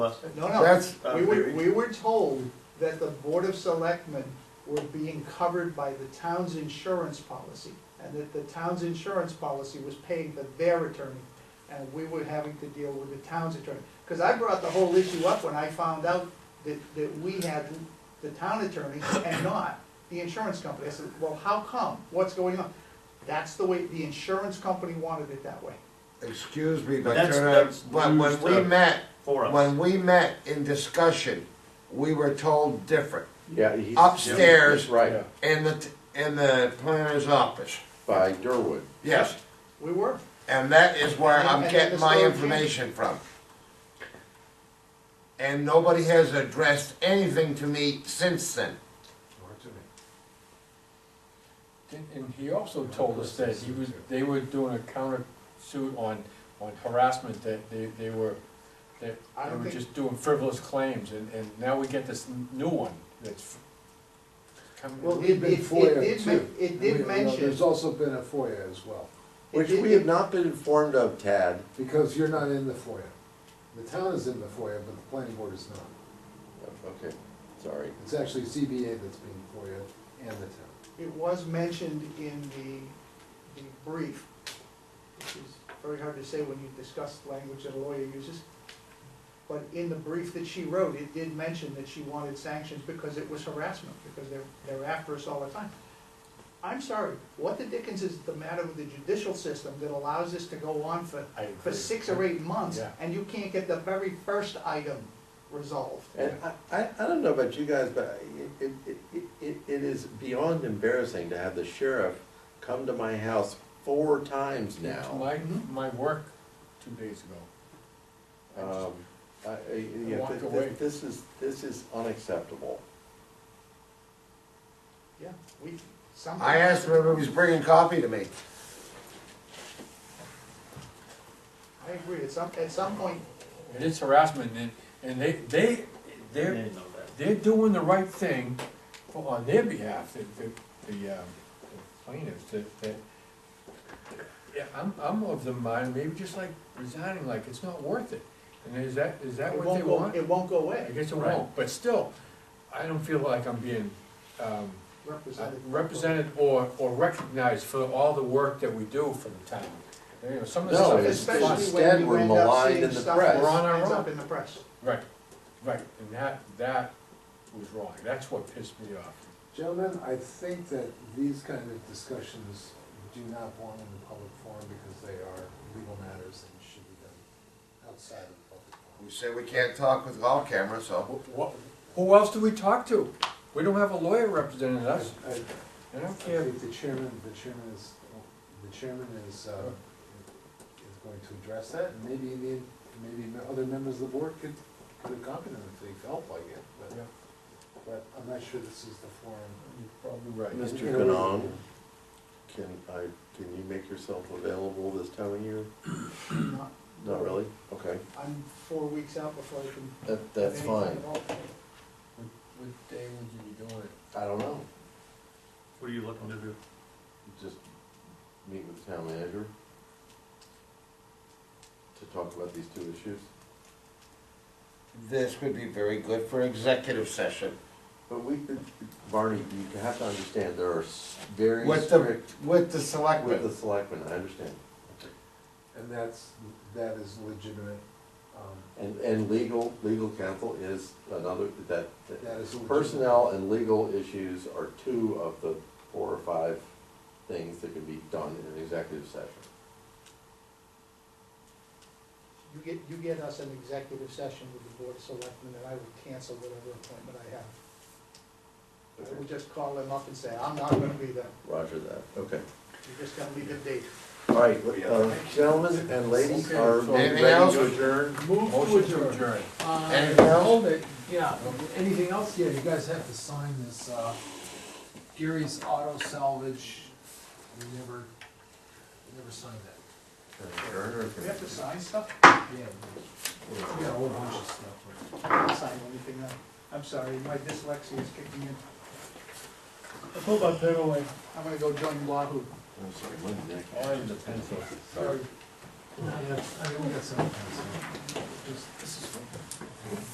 No, That's- no, we were, we were told that the Board of Selectmen were being covered by the town's insurance policy, and that the town's insurance policy was paying for their attorney, and we were having to deal with the town's attorney. Because I brought the whole issue up when I found out that, that we had the town attorney and not the insurance company. I said, well, how come? What's going on? That's the way, the insurance company wanted it that way. Excuse me, but That's- you're not, that's but when used we up met, for us. when we met in discussion, we were told different. Yeah, he's. Upstairs. Right, In the, t- in the planner's office, by Durwood. yes, We were. and that is where I'm And- getting and my Mr. O'Keefe. information from. And nobody has addressed anything to me since then. And- And he also told us that he was, they were doing a counter suit on, on harassment, that they, they were, that I they don't were think- just doing frivolous claims, and, and now we get this n- new one that's coming. Well, We've it, been it, FOIA it did, too. men- it We- did you know, mention, There's also been a FOIA as well, Which we have not been informed of, Tad. because you're not in the FOIA. The town is in the FOIA, but the planning board is not. Okay, sorry. It's actually CBA that's being FOIA and the town. it was mentioned in the, the brief, which is very hard to say when you discuss language that a lawyer uses. But in the brief that she wrote, it did mention that she wanted sanctions because it was harassment, because they're, they're after us all the time. I'm sorry, what the dickens is the matter with the judicial system that allows this to go on for, I for agree. six or eight months? Yeah. And you can't get the very first item resolved? And I, I, I don't know about you guys, but it, it, it, it, it is beyond embarrassing to have the sheriff come to my house four times now. My, Mm-hmm. my work two days ago. I just- Um, I, I, I you know, walked thi- away. thi- this is, this is unacceptable. Yeah, we, something. I asked him if he was bringing coffee to me. I agree, at some, at some point, It is harassment, and, and they, they, They they're, didn't know that. they're doing the right thing for- on their behalf, the, the, the um, the plaintiffs, that, that. Yeah, I'm, I'm of the mind, maybe just like resigning, like, it's not worth it, and is that, is that it what they won't go, want? it won't go I away, guess it Right. won't, but still, I don't feel like I'm being, um, represented. represented or, or recognized for all the work that we do for the town. You know, some of No, the stuff is it's- Especially fun. when instead you we're end up maligned seeing in the stuff press. that We're on our ends own. up in the press. Right, right, and that, that was wrong, that's what pissed me off. Gentlemen, I think that these kind of discussions do not belong in the public forum because they are legal matters and should be done outside of the public forum. We said we can't talk with all cameras, so. Wh- wh- Who else do we talk to? We don't have a lawyer representing us, I- I- I don't I care. think the chairman, the chairman is, the chairman is, uh, is going to address that, and maybe the, maybe the other members of the board could, could accompany them if they felt like it, Yeah. but, but I'm not sure this is the forum. You're probably right. Mr. You know, we- Canong, can I, can you make yourself available this time of year? Not- Not really? Okay. I'm four weeks out before I can. That, have that's any fine. time at all. What day would you be doing it? I don't know. What are you looking to do? just meet with the town manager to talk about these two issues. This would be very good for executive session. But we, Barney, you have to understand, there are s- very With the, strict, with the with the selectmen. selectmen, I understand. And that's, that is legitimate, um, And, and legal, legal counsel is another, that, that- that is. legitimate. personnel and legal issues are two of the four or five things that can be done in an executive session. You get, you get us an executive session with the Board of Selectmen, and I will cancel whatever appointment I have. I will just call them up and say, I'm not gonna be there, Roger that, okay. you're just gonna leave a date. All right, uh, gentlemen and ladies, are we ready Anything else? to adjourn? Motion to adjourn. Uh, Anything else? Yeah, anything else? Yeah, you guys have to sign this, uh, Gary's Auto Salvage, we never, we never signed that. Do we have to sign stuff? Yeah. We got a whole bunch of stuff. I don't sign anything, now. I'm sorry, my dyslexia is kicking in. I put my pen away. I'm gonna go join Wahoo. I'm sorry, my neck. I have the pencil. Sorry. Yeah, I mean, we got some. of that stuff. Just- This is.